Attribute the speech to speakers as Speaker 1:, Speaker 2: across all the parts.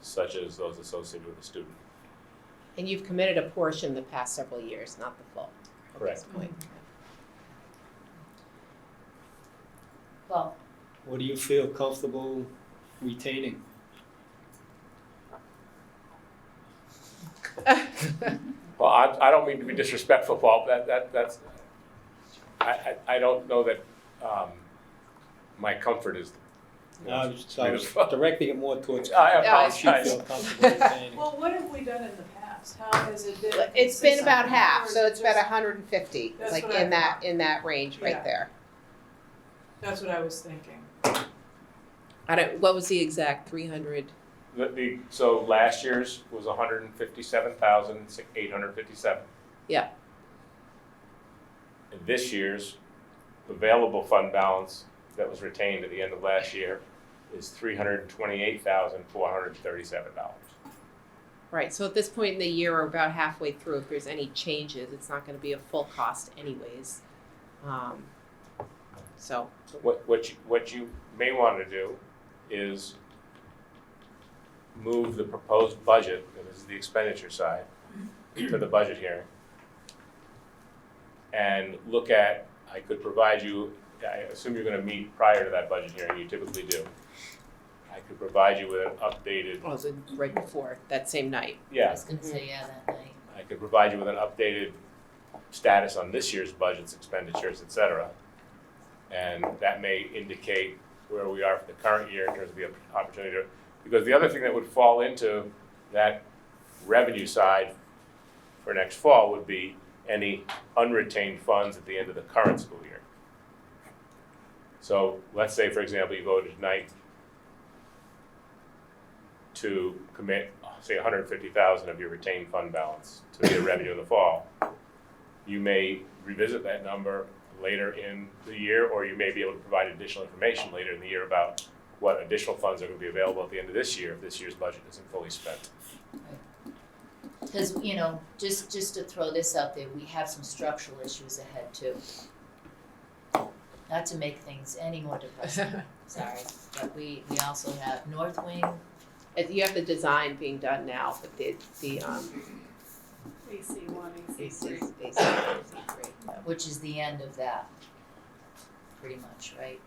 Speaker 1: such as those associated with the student.
Speaker 2: And you've committed a portion the past several years, not the full at this
Speaker 1: Correct.
Speaker 2: point.
Speaker 3: Well,
Speaker 4: What do you feel comfortable retaining?
Speaker 1: Well, I, I don't mean to be disrespectful, Paul, but that, that, that's, I, I, I don't know that, um, my comfort is.
Speaker 4: I was, I was directing it more towards.
Speaker 1: I
Speaker 4: What you
Speaker 1: apologize.
Speaker 4: feel comfortable retaining.
Speaker 5: Well, what have we done in the past? How has it been?
Speaker 2: It's been about
Speaker 5: consistent, or
Speaker 2: half,
Speaker 5: is
Speaker 2: so
Speaker 5: it
Speaker 2: it's about
Speaker 5: just-
Speaker 2: hundred and fifty,
Speaker 5: That's
Speaker 2: like
Speaker 5: what I
Speaker 2: in that, in that range right
Speaker 5: Yeah.
Speaker 2: there.
Speaker 5: That's what I was thinking.
Speaker 2: I don't, what was the exact, three hundred?
Speaker 1: The, the, so last year's was hundred and fifty-seven thousand, eight hundred fifty-seven.
Speaker 2: Yeah.
Speaker 1: And this year's available fund balance that was retained at the end of last year is three hundred and twenty-eight thousand, four hundred and thirty-seven dollars.
Speaker 2: Right, so at this point in the year, we're about halfway through, if there's any changes, it's not gonna be a full cost anyways. Um, so,
Speaker 1: What, what you, what you may wanna do is move the proposed budget, and this is the expenditure side, to the budget hearing. And look at, I could provide you, I assume you're gonna meet prior to that budget hearing, you typically do. I could provide you with an updated,
Speaker 2: well, it was right before, that same night. Mm-hmm.
Speaker 3: I
Speaker 1: yeah,
Speaker 3: was gonna say, yeah, that night.
Speaker 1: I could provide you with an updated status on this year's budgets, expenditures, et cetera. And that may indicate where we are for the current year in terms of the op- opportunity to, because the other thing that would fall into that revenue side for next fall would be any unretained funds at the end of the current school year. So let's say, for example, you voted tonight to commit, say, hundred and fifty thousand of your retained fund balance to be a revenue in the fall. You may revisit that number later in the year, or you may be able to provide additional information later in the year about what additional funds are gonna be available at the end of this year if this year's budget isn't fully spent.
Speaker 3: Cause, you know, just, just to throw this out there, we have some structural issues ahead too. Not to make things any more depressing, sorry, but we, we also have North Wing,
Speaker 2: Uh, You have the design being done now, but the, the, um,
Speaker 5: AC one,
Speaker 2: AC,
Speaker 3: which is the end of that, pretty much, right?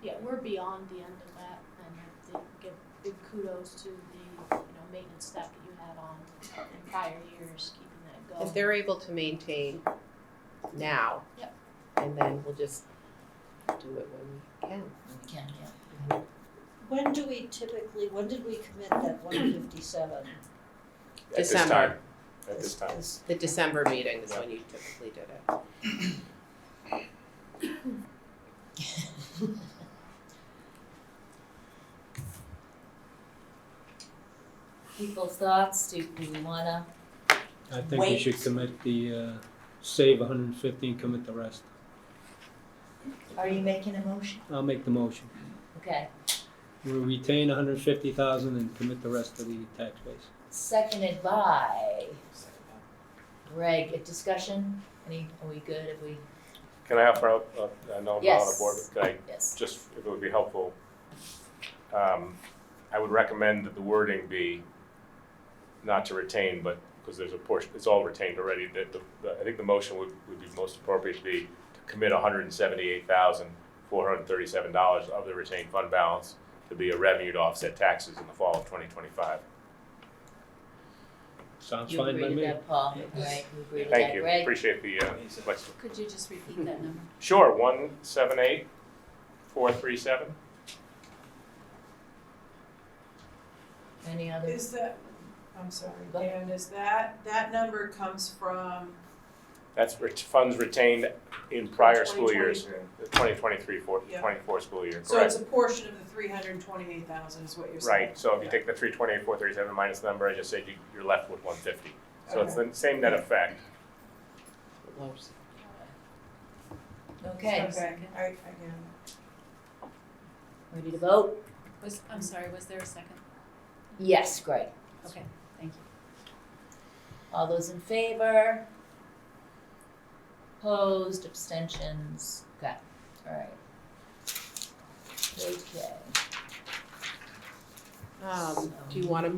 Speaker 6: Yeah, we're beyond the end of that, and I think give big kudos to the, you know, maintenance staff that you had on in prior years, keeping that going.
Speaker 2: if they're able to maintain now.
Speaker 6: Yep.
Speaker 2: And then we'll just do it when we can.
Speaker 3: We can, yeah.
Speaker 7: When do we typically, when did we commit that one fifty-seven?
Speaker 1: At this
Speaker 2: December.
Speaker 1: time, at this time.
Speaker 2: The December meeting is when you typically did it.
Speaker 3: People thoughts, do, do we wanna,
Speaker 4: I think we should commit the, uh, save hundred and fifty and commit the rest.
Speaker 3: are you making a motion?
Speaker 4: I'll make the motion.
Speaker 3: Okay,
Speaker 4: We retain hundred and fifty thousand and commit the rest to the tax base.
Speaker 3: seconded by Greg, a discussion, any, are we good, if we,
Speaker 1: Can I offer, up- up- uh, I know I'm not on the board,
Speaker 3: Yes.
Speaker 1: but can I
Speaker 3: yes,
Speaker 1: just if it would be helpful, um, I would recommend that the wording be not to retain, but, because there's a portion, it's all retained already, that the, the- I think the motion would, would be most appropriate to be to commit hundred and seventy-eight thousand, four hundred and thirty-seven dollars of the retained fund balance to be a revenue to offset taxes in the fall of twenty twenty-five.
Speaker 4: Sounds
Speaker 3: you
Speaker 4: fine
Speaker 3: agree
Speaker 4: by
Speaker 3: to
Speaker 4: me.
Speaker 3: that, Paul, right, you agree to that, Greg?
Speaker 1: Thank you, appreciate the, uh, flexibility.
Speaker 8: Could you just repeat that number?
Speaker 1: Sure, one, seven, eight, four, three, seven.
Speaker 3: Any other,
Speaker 5: Is that, I'm sorry,
Speaker 3: Go
Speaker 5: Dan, is that, that number comes from,
Speaker 1: That's ret- funds retained in prior school years, the
Speaker 5: 2023.
Speaker 1: 2023, four-
Speaker 5: Yeah.
Speaker 1: 24 school year,
Speaker 5: so it's
Speaker 1: correct?
Speaker 5: a portion of the three hundred and twenty-eight thousand is what you're saying?
Speaker 1: Right, so if you take the 328, 437 minus the number I just said, you- you're left with 150. So it's the same net effect.
Speaker 3: okay,
Speaker 5: Okay, I, I can.
Speaker 3: ready to vote?
Speaker 8: Was, I'm sorry, was there a second?
Speaker 3: Yes, Greg,
Speaker 8: Okay, thank you.
Speaker 3: all those in favor? Opposed, abstentions, okay, alright. Okay.
Speaker 2: Um, do you wanna